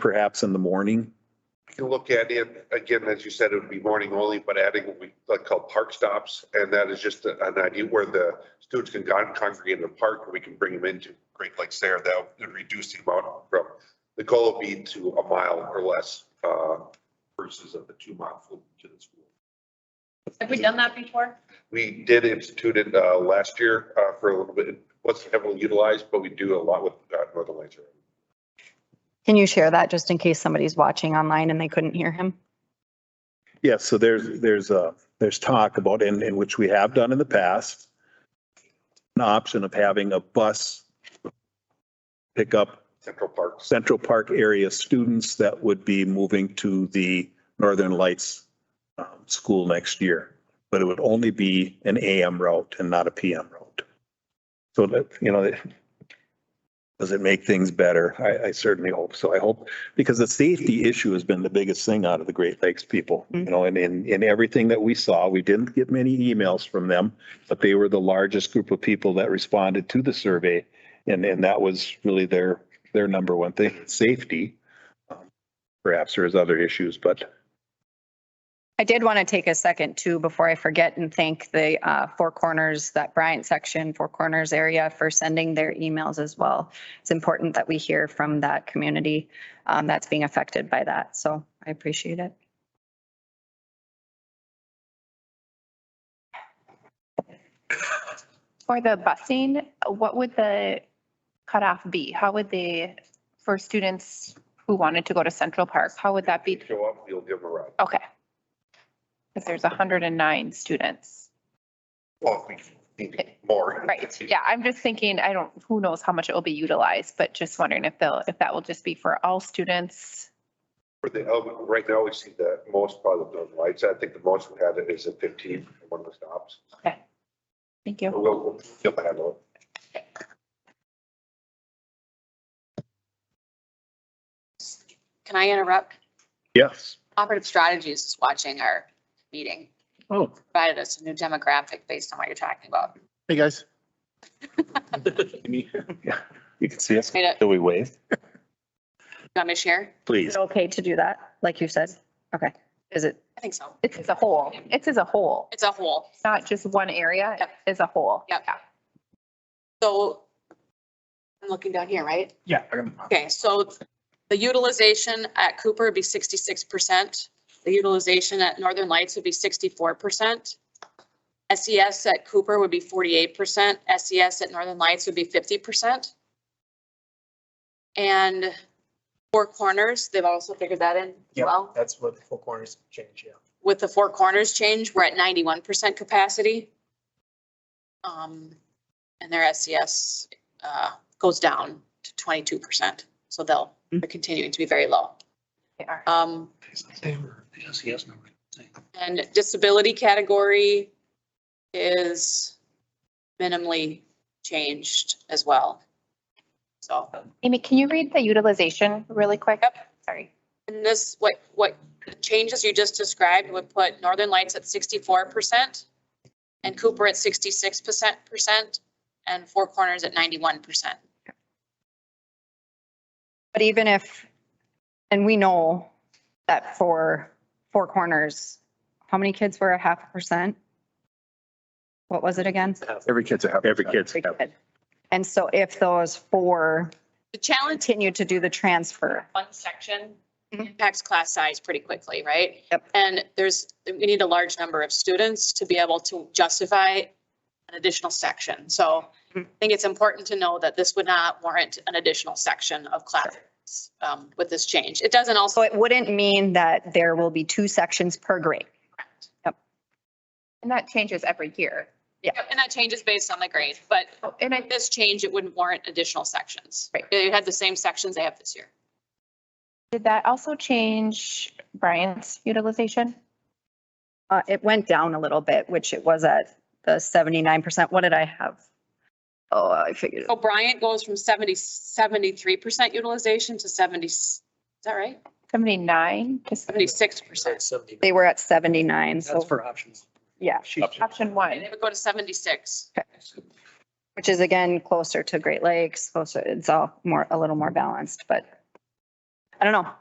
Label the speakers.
Speaker 1: perhaps in the morning.
Speaker 2: We can look at it, again, as you said, it would be morning only, but adding what we like call park stops. And that is just an idea where the students can con- congregate in the park and we can bring them into Great Lakes there. That would reduce the amount from, the goal would be to a mile or less uh, versus of the two mile fleet to the school.
Speaker 3: Have we done that before?
Speaker 2: We did institute it uh, last year uh, for a little bit. It wasn't heavily utilized, but we do a lot with uh, Northern Lights. already.
Speaker 4: Can you share that just in case somebody's watching online and they couldn't hear him?
Speaker 1: Yes, so there's, there's uh there's talk about, and, and which we have done in the past, an option of having a bus pick up
Speaker 2: Central Parks.
Speaker 1: Central Park area students that would be moving to the Northern Lights um, school next year. But it would only be an AM route and not a PM route. So that, you know, that- does it make things better? I, I certainly hope so. I hope, because the safety issue has been the biggest thing out of the Great Lakes people. You know, and in, in everything that we saw, we didn't get many emails from them, but they were the largest group of people that responded to the survey. And, and that was really their, their number one thing, safety. Um, Perhaps there's other issues, but
Speaker 4: I did want to take a second too, before I forget and thank the uh, Four Corners, that Bryant section, Four Corners area for sending their emails as well. It's important that we hear from that community um, that's being affected by that. So I appreciate it.
Speaker 5: For the busing, what would the cutoff be? How would they, for students who wanted to go to Central Park, how would that be?
Speaker 2: If they Show up, we'll give them a ride.
Speaker 5: Okay. Because there's hundred and nine students.
Speaker 2: Well, if we need more.
Speaker 5: Right, yeah, I'm just thinking, I don't, who knows how much it will be utilized, but just wondering if they'll, if that will just be for all students.
Speaker 2: For the, oh, right now, we see the most part of those lights. I think the most we had is at fifteen, one of the stops.
Speaker 5: Thank you.
Speaker 2: We'll, we'll feel the handle.
Speaker 3: Can I interrupt?
Speaker 1: yes.
Speaker 3: Operative Strategies is watching our meeting,
Speaker 6: Oh,
Speaker 3: provided us a new demographic based on what you're talking about.
Speaker 6: hey, guys.
Speaker 1: You can see us.
Speaker 3: Made it-
Speaker 1: Do we wave?
Speaker 3: You want me to share?
Speaker 4: Is
Speaker 1: Please.
Speaker 4: it okay to do that, like you said? Okay. Is it?
Speaker 3: I think so.
Speaker 5: It's as a whole, it's as a whole,
Speaker 3: It's a whole.
Speaker 5: It's not just one area,
Speaker 3: Yep.
Speaker 5: as a whole.
Speaker 3: Yep.
Speaker 5: Yeah.
Speaker 3: So I'm looking down here, right?
Speaker 6: Yeah.
Speaker 3: Okay, so the utilization at Cooper would be sixty-six percent. The utilization at Northern Lights would be sixty-four percent. SES at Cooper would be forty-eight percent. SES at Northern Lights would be fifty percent. And Four Corners, they've also figured that in as
Speaker 7: Yeah,
Speaker 3: well.
Speaker 7: that's what the four corners change, yeah.
Speaker 3: With the Four Corners change, we're at ninety-one percent capacity. Um, and their SES, uh, goes down to twenty-two percent. So they'll, they're continuing to be very low.
Speaker 5: They are.
Speaker 3: Um,
Speaker 7: Yes, yes, number.
Speaker 3: and disability category is minimally changed as well. So,
Speaker 5: Amy, can you read the utilization really quick?
Speaker 3: Yep.
Speaker 5: Sorry.
Speaker 3: and this, what, what the changes you just described would put Northern Lights at sixty-four percent and Cooper at sixty-six percent, percent, and Four Corners at ninety-one percent.
Speaker 4: But even if, and we know that for Four Corners, how many kids were a half a percent? What was it again?
Speaker 6: Every kid's a happy.
Speaker 1: Every kid's.
Speaker 4: Every kid. And so if those four
Speaker 3: The challenge
Speaker 4: continue to do the transfer,
Speaker 3: one section
Speaker 4: Mhm.
Speaker 3: impacts class size pretty quickly, right?
Speaker 4: Yep.
Speaker 3: And there's, we need a large number of students to be able to justify an additional section. So I
Speaker 4: Mhm.
Speaker 3: think it's important to know that this would not warrant an additional section of classes um, with this change. It doesn't
Speaker 4: so
Speaker 3: also,
Speaker 4: it wouldn't mean that there will be two sections per grade.
Speaker 5: And that changes every year.
Speaker 3: and that changes based on the grade, but
Speaker 5: Oh, And I,
Speaker 3: this change, it wouldn't warrant additional sections.
Speaker 5: Right.
Speaker 3: They had the same sections they have this year.
Speaker 5: Did that also change Brian's utilization?
Speaker 4: Uh, it went down a little bit, which it was at the seventy-nine percent. What did I have? Oh, I figured, it-
Speaker 3: So Bryant goes from 70, 73% utilization to 70, is that right?
Speaker 5: Seventy-nine to seventy,
Speaker 3: 76%.
Speaker 7: Seventy.
Speaker 4: they were at seventy-nine,
Speaker 7: That's
Speaker 4: so,
Speaker 7: for options.
Speaker 4: yeah,
Speaker 7: She-
Speaker 5: option
Speaker 3: And
Speaker 5: one.
Speaker 3: It would go to 76.
Speaker 4: which is again closer to Great Lakes, closer, it's all more, a little more balanced, but I don't know.